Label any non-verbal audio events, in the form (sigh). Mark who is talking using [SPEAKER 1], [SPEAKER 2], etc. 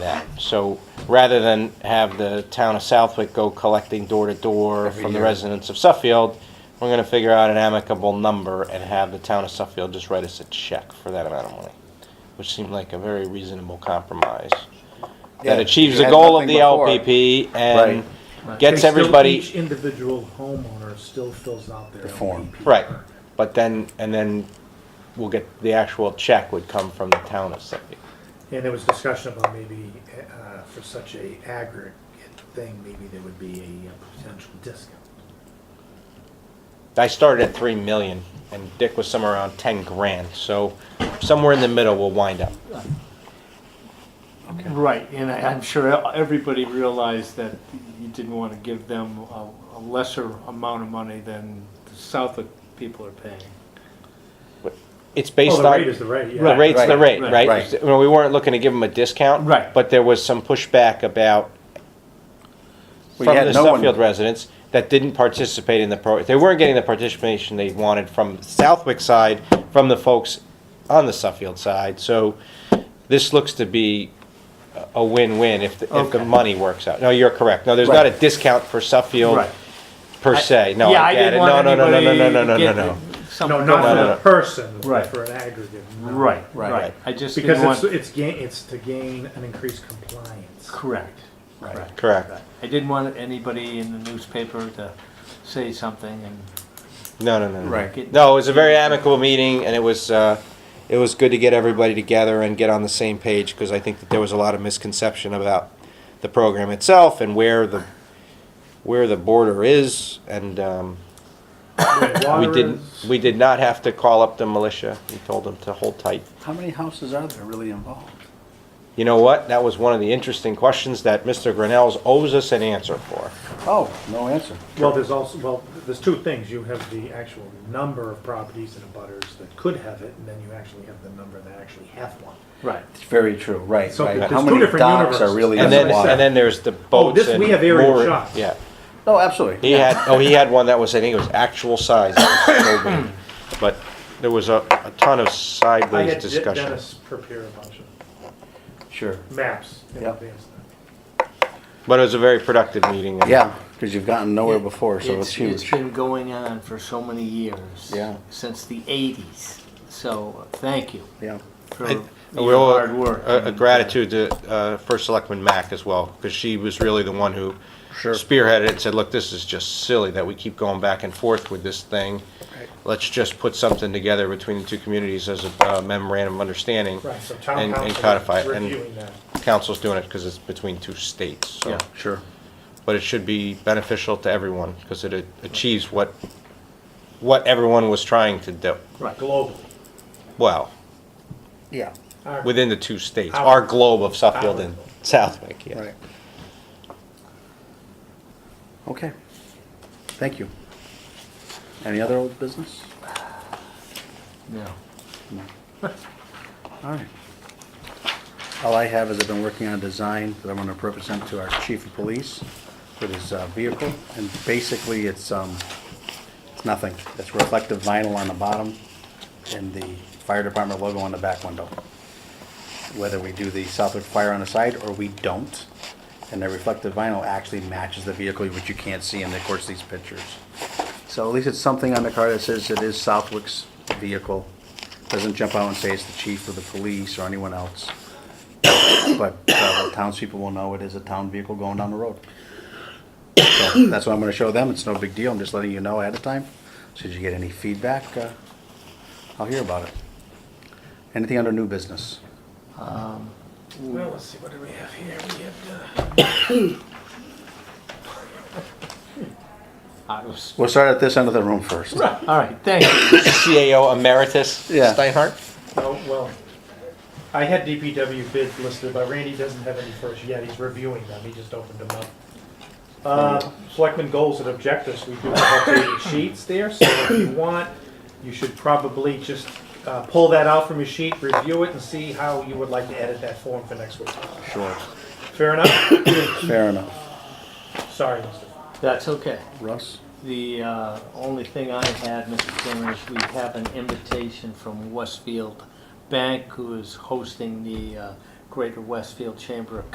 [SPEAKER 1] that. So rather than have the town of Southwick go collecting door to door from the
[SPEAKER 2] year.
[SPEAKER 1] residents of Suffield, we're gonna figure out an amicable number and have the town of Suffield just write us a check for that amount of money, which seemed like a very reasonable compromise.
[SPEAKER 2] Yeah,
[SPEAKER 1] That achieves
[SPEAKER 2] you
[SPEAKER 1] the
[SPEAKER 2] had
[SPEAKER 1] goal of
[SPEAKER 2] nothing
[SPEAKER 1] the
[SPEAKER 2] before.
[SPEAKER 1] LPP and
[SPEAKER 3] Right. They
[SPEAKER 1] gets
[SPEAKER 3] still-
[SPEAKER 1] everybody,
[SPEAKER 3] Each individual homeowner still fills out their.
[SPEAKER 2] The form.
[SPEAKER 3] LPP
[SPEAKER 1] right,
[SPEAKER 3] permit.
[SPEAKER 1] but then, and then we'll get, the actual check would come from the town of Suffield.
[SPEAKER 3] And there was discussion about maybe, uh, for such a aggregate thing, maybe there would be a uh, potential discount.
[SPEAKER 1] I started at three million, and Dick was somewhere around ten grand. So somewhere in the middle, we'll wind up.
[SPEAKER 4] Right, and I, I'm sure everybody realized that you didn't want to give them a, a lesser amount of money than the Southwick people are paying.
[SPEAKER 1] It's based
[SPEAKER 3] Well, the
[SPEAKER 1] on
[SPEAKER 3] rate is the rate, yeah.
[SPEAKER 1] the rate's the rate,
[SPEAKER 2] right,
[SPEAKER 4] right,
[SPEAKER 1] right?
[SPEAKER 2] right.
[SPEAKER 1] Well, we weren't looking to give them a discount,
[SPEAKER 4] Right.
[SPEAKER 1] But there was some pushback about
[SPEAKER 2] We
[SPEAKER 1] from
[SPEAKER 2] had
[SPEAKER 1] the
[SPEAKER 2] no one-
[SPEAKER 1] Suffield residents that didn't participate in the pro. They weren't getting the participation they wanted from Southwick side, from the folks on the Suffield side. So this looks to be a- a win-win if the, if the
[SPEAKER 4] Okay.
[SPEAKER 1] money works out. No, you're correct. No, there's not a discount for Suffield.
[SPEAKER 4] Right.
[SPEAKER 1] per se. No,
[SPEAKER 4] Yeah,
[SPEAKER 1] I get
[SPEAKER 4] didn't
[SPEAKER 1] it. No,
[SPEAKER 4] want
[SPEAKER 1] no, no, no, no, no, no, no, no,
[SPEAKER 4] anybody
[SPEAKER 1] no.
[SPEAKER 4] get
[SPEAKER 3] No, not
[SPEAKER 4] something-
[SPEAKER 1] no,
[SPEAKER 3] for
[SPEAKER 1] no.
[SPEAKER 3] the person, but
[SPEAKER 4] Right.
[SPEAKER 3] for an aggregate. no.
[SPEAKER 4] Right,
[SPEAKER 2] Right.
[SPEAKER 4] right. I just didn't
[SPEAKER 3] Because
[SPEAKER 4] want,
[SPEAKER 3] it's, it's gain, it's to gain an increased compliance.
[SPEAKER 4] correct,
[SPEAKER 2] Right.
[SPEAKER 4] correct.
[SPEAKER 1] Correct.
[SPEAKER 4] I didn't want anybody in the newspaper to say something and
[SPEAKER 1] No, no, no, no.
[SPEAKER 2] Right.
[SPEAKER 4] get.
[SPEAKER 1] No, it was a very amicable meeting, and it was uh, it was good to get everybody together and get on the same page because I think that there was a lot of misconception about the program itself and where the where the border is, and um, we didn't we did not have to call up the militia. We told them to hold tight.
[SPEAKER 2] How many houses are there really involved?
[SPEAKER 1] You know what? That was one of the interesting questions that Mr. Grinnell's owes us an answer for.
[SPEAKER 2] Oh, no answer.
[SPEAKER 3] Well, there's also, well, there's two things. You have the actual number of properties and abutters that could have it, and then you actually have the number that actually have one.
[SPEAKER 4] Right.
[SPEAKER 2] It's very true, right,
[SPEAKER 3] So
[SPEAKER 2] right.
[SPEAKER 3] there's
[SPEAKER 2] How
[SPEAKER 3] two
[SPEAKER 2] many
[SPEAKER 3] different
[SPEAKER 2] docks are
[SPEAKER 3] universes.
[SPEAKER 2] really
[SPEAKER 1] And then,
[SPEAKER 3] what I said. Oh,
[SPEAKER 2] involved?
[SPEAKER 1] and then there's the boats.
[SPEAKER 3] this-
[SPEAKER 1] and
[SPEAKER 3] we have aerial
[SPEAKER 1] mooring-
[SPEAKER 3] shots.
[SPEAKER 1] Yeah.
[SPEAKER 2] No,
[SPEAKER 1] He
[SPEAKER 2] absolutely.
[SPEAKER 1] had, oh, he had one that was, I think it was actual size, that was
[SPEAKER 3] (coughs)
[SPEAKER 1] told me. But there was a, a ton of
[SPEAKER 3] I had
[SPEAKER 1] sideways
[SPEAKER 3] De-
[SPEAKER 1] discussion.
[SPEAKER 3] Dennis prepare a bunch of
[SPEAKER 2] Sure.
[SPEAKER 3] maps in
[SPEAKER 2] Yep.
[SPEAKER 3] advance.
[SPEAKER 1] But it was a very productive meeting. and-
[SPEAKER 2] Yeah, because you've gotten nowhere before, so it's
[SPEAKER 4] It's
[SPEAKER 2] huge.
[SPEAKER 4] been going on for so many years.
[SPEAKER 2] Yeah.
[SPEAKER 4] Since the eighties, so thank you.
[SPEAKER 2] Yeah.
[SPEAKER 4] for
[SPEAKER 1] I-
[SPEAKER 4] your
[SPEAKER 1] We owe
[SPEAKER 4] hard work.
[SPEAKER 1] a- a
[SPEAKER 4] and,
[SPEAKER 1] gratitude to, uh, First Selectman Mack as well, because she was really the one who spearheaded it and said, look, this is just silly that we keep going back and forth with this thing. Let's just put something together between the two communities as a uh, memorandum of understanding.
[SPEAKER 3] Right, so town
[SPEAKER 1] and and
[SPEAKER 3] council
[SPEAKER 1] codify
[SPEAKER 3] is
[SPEAKER 1] it.
[SPEAKER 3] reviewing
[SPEAKER 1] And
[SPEAKER 3] that.
[SPEAKER 1] council's doing it because it's between two states,
[SPEAKER 4] uh,
[SPEAKER 1] so.
[SPEAKER 4] Yeah,
[SPEAKER 2] Sure.
[SPEAKER 1] but it should be beneficial to everyone because it a- achieves what what everyone was trying to do.
[SPEAKER 4] right.
[SPEAKER 3] Globally.
[SPEAKER 1] Well,
[SPEAKER 2] Yeah,
[SPEAKER 3] Our-
[SPEAKER 1] within the two states, our globe of Suffield and Southwick. Yeah.
[SPEAKER 2] right. Okay. Thank you. Any other old business?
[SPEAKER 4] No.
[SPEAKER 2] All right. All I have is I've been working on a design that I'm gonna represent to our chief of police with his uh, vehicle, and basically it's, um, it's nothing. It's reflective vinyl on the bottom and the fire department logo on the back window. Whether we do the Southwick Fire on the side or we don't, and the reflective vinyl actually matches the vehicle, which you can't see in, of course, these pictures. So at least it's something on the car that says it is Southwick's vehicle. Doesn't jump out and say it's the chief or the police or anyone else. But uh, the townspeople will know it is a town vehicle going down the road. So That's what I'm gonna show them. It's no big deal. I'm just letting you know ahead of time. Should you get any feedback, uh, I'll hear about it. Anything under new business?
[SPEAKER 3] Well, let's see, what do we have here? We have, uh,
[SPEAKER 4] I was,
[SPEAKER 2] We'll start at this end of the room first.
[SPEAKER 4] all right, thank you. (coughs)
[SPEAKER 1] CAO emeritus
[SPEAKER 2] Yeah.
[SPEAKER 1] Steinhardt.
[SPEAKER 3] oh, well, I had DPW bids listed, but Randy doesn't have any first yet. He's reviewing them. He just opened them up. Uh, Selectmen goals and objectives, we do have updated sheets there, so if you want, you should probably just uh, pull that out from your sheet, review it, and see how you would like to edit that form for next week.
[SPEAKER 2] Sure.
[SPEAKER 3] Fair enough? (coughs)
[SPEAKER 2] Fair enough.
[SPEAKER 3] Sorry, Mr.
[SPEAKER 4] That's okay.
[SPEAKER 2] Russ?
[SPEAKER 4] The uh, only thing I had, Mr. Chairman, is we have an invitation from Westfield Bank, who is hosting the uh, Greater Westfield Chamber of